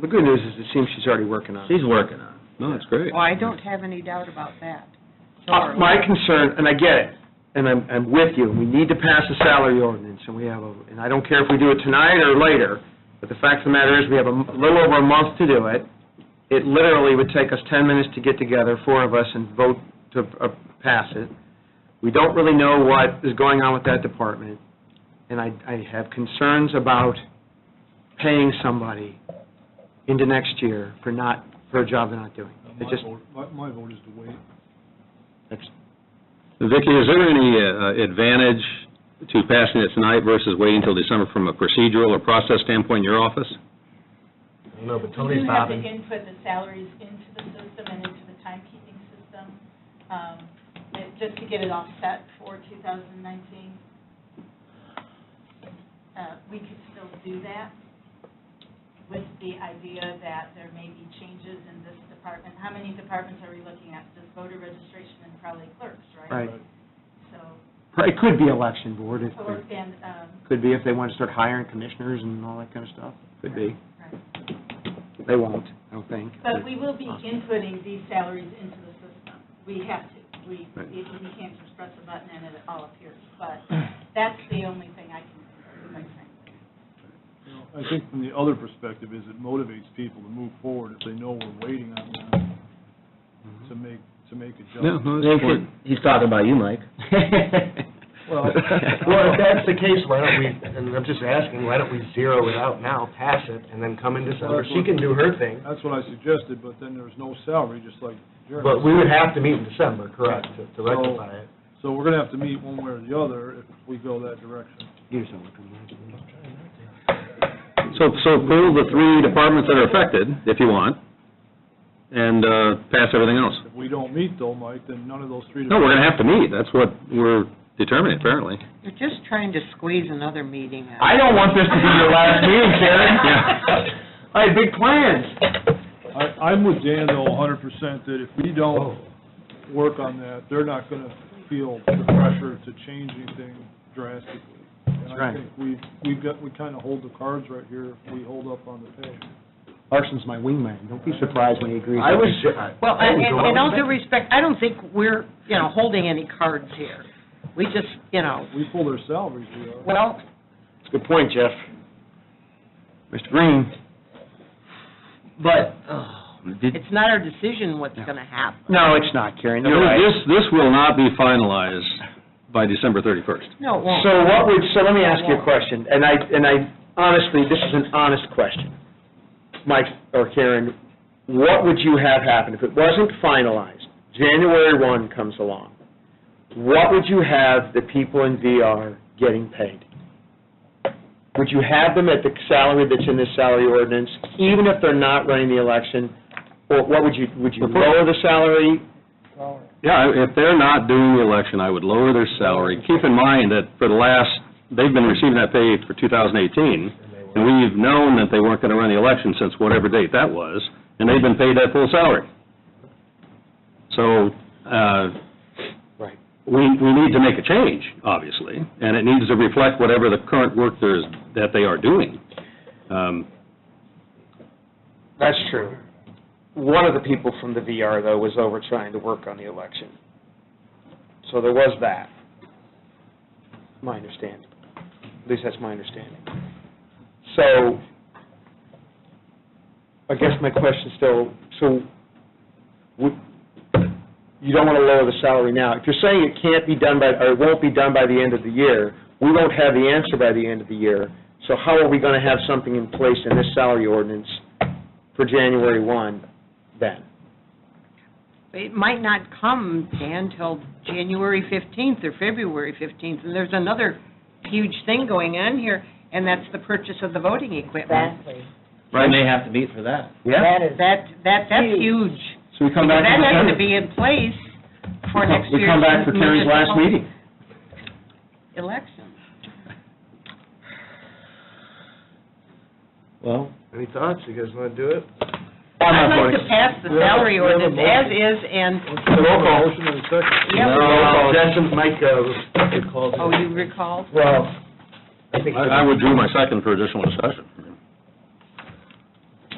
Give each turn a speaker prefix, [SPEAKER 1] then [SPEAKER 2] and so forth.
[SPEAKER 1] The good news is it seems she's already working on it.
[SPEAKER 2] She's working on it.
[SPEAKER 3] No, that's great.
[SPEAKER 4] Well, I don't have any doubt about that.
[SPEAKER 1] Uh, My concern, and I get it, and I'm, I'm with you, we need to pass a salary ordinance, and we have a, and I don't care if we do it tonight or later, but the fact of the matter is, we have a m- little over a month to do it. It literally would take us 10 minutes to get together, four of us, and vote to uh, pass it. We don't really know what is going on with that department, and I, I have concerns about paying somebody into next year for not, for a job they're not doing. It just,
[SPEAKER 5] Uh, My, my vote is to wait.
[SPEAKER 1] it's-
[SPEAKER 3] Vicki, is there any uh, advantage to passing it tonight versus waiting till December from a procedural or process standpoint in your office?
[SPEAKER 2] No, but
[SPEAKER 6] We do have to input the salaries into the system and into the timekeeping system, um, it- just to get it offset for 2019. Uh, We could still do that with the idea that there may be changes in this department. How many departments are we looking at? Just voter registration and probably clerks, right?
[SPEAKER 1] right.
[SPEAKER 6] So,
[SPEAKER 1] It could be election board, if
[SPEAKER 6] or, and, um,
[SPEAKER 1] Could be if they want to start hiring commissioners and all that kind of stuff. Could be.
[SPEAKER 6] right.
[SPEAKER 1] They won't, I don't think.
[SPEAKER 6] But we will be inputting these salaries into the system. We have to. We, we we can't just press a button and it all appears. But that's the only thing I can, do, quite frankly.
[SPEAKER 5] You know, I think from the other perspective is it motivates people to move forward if they know we're waiting on them to make, to make
[SPEAKER 3] No,
[SPEAKER 5] adjustments.
[SPEAKER 3] no, that's important.
[SPEAKER 2] He's talking about you, Mike.
[SPEAKER 3] Mm-hmm.
[SPEAKER 7] Well, well, if that's the case, why don't we, and I'm just asking, why don't we zero it out now, pass it, and then come in December? She can do her thing,
[SPEAKER 5] That's what I suggested, but then there's no salary, just like Jeremy.
[SPEAKER 7] but we would have to meet in December, correct, to- to rectify it.
[SPEAKER 5] So we're gonna have to meet one way or the other if we go that direction.
[SPEAKER 3] So, so approve the three departments that are affected, if you want, and uh, pass everything else.
[SPEAKER 5] If we don't meet though, Mike, then none of those three.
[SPEAKER 3] No, we're going to have to meet, that's what we're determining apparently.
[SPEAKER 4] You're just trying to squeeze another meeting out.
[SPEAKER 1] I don't want this to be your last meeting, Karen.
[SPEAKER 3] Yeah.
[SPEAKER 1] I had big plans.
[SPEAKER 5] I, I'm with Dan though a hundred percent that if we don't work on that, they're not gonna feel the pressure to change anything drastically. And I
[SPEAKER 1] right.
[SPEAKER 5] think we, we've got, we kinda hold the cards right here, if we hold up on the pay.
[SPEAKER 1] Larson's my wingman, don't be surprised when he agrees.
[SPEAKER 7] I was.
[SPEAKER 4] Well, and, and in all due respect, I don't think we're, you know, holding any cards here. We just, you know,
[SPEAKER 5] We pull their salaries, we are.
[SPEAKER 4] well,
[SPEAKER 1] Good point, Jeff. Mr. Green?
[SPEAKER 2] But, oh, did,
[SPEAKER 4] it's not our decision what's gonna happen.
[SPEAKER 1] No, it's not, Karen, you're right.
[SPEAKER 3] This, this will not be finalized by December 31st.
[SPEAKER 4] No, it won't.
[SPEAKER 1] So what would, so let me ask you a question, and I, and I, honestly, this is an honest question. Mike or Karen, what would you have happen if it wasn't finalized? January 1 comes along. What would you have the people in VR getting paid? Would you have them at the salary that's in this salary ordinance, even if they're not running the election? Or what would you, would you lower the salary?
[SPEAKER 3] Yeah, if they're not doing the election, I would lower their salary. Keep in mind that for the last, they've been receiving that pay for 2018, and we've known that they weren't going to run the election since whatever date that was, and they've been paid that full salary. So, uh,
[SPEAKER 1] Right.
[SPEAKER 3] we, we need to make a change, obviously, and it needs to reflect whatever the current work there is, that they are doing. Um,
[SPEAKER 1] That's true. One of the people from the VR, though, was over trying to work on the election. So there was that, my understanding. At least that's my understanding. So, I guess my question still, so, would- you don't want to lower the salary now. If you're saying it can't be done by, or it won't be done by the end of the year, we won't have the answer by the end of the year. So how are we going to have something in place in this salary ordinance for January 1 then?
[SPEAKER 4] It might not come, Dan, till January fifteenth or February fifteenth, and there's another huge thing going on here, and that's the purchase of the voting equipment.
[SPEAKER 8] Exactly.
[SPEAKER 2] we may have to meet for that.
[SPEAKER 8] That is,
[SPEAKER 4] That, that, that's huge.
[SPEAKER 1] So we come
[SPEAKER 4] Because
[SPEAKER 1] back
[SPEAKER 4] that
[SPEAKER 1] in December.
[SPEAKER 4] has to be in place for next
[SPEAKER 1] We
[SPEAKER 4] year's.
[SPEAKER 1] come back for Terry's last
[SPEAKER 4] municipal
[SPEAKER 1] meeting.
[SPEAKER 4] Election.
[SPEAKER 2] Well,
[SPEAKER 7] Any thoughts, you guys want to do it?
[SPEAKER 1] I'm
[SPEAKER 4] I'd
[SPEAKER 1] not
[SPEAKER 4] like
[SPEAKER 1] voting.
[SPEAKER 4] to pass the
[SPEAKER 5] We have a-
[SPEAKER 4] salary
[SPEAKER 5] we have a
[SPEAKER 4] ordinance as is, and,
[SPEAKER 1] Roll call.
[SPEAKER 5] Motion and a second.
[SPEAKER 4] yeah, we-
[SPEAKER 7] No, Jensen, Mike, uh,
[SPEAKER 4] oh, you recall?
[SPEAKER 7] well, I think.
[SPEAKER 3] I I withdrew my second for additional discussion.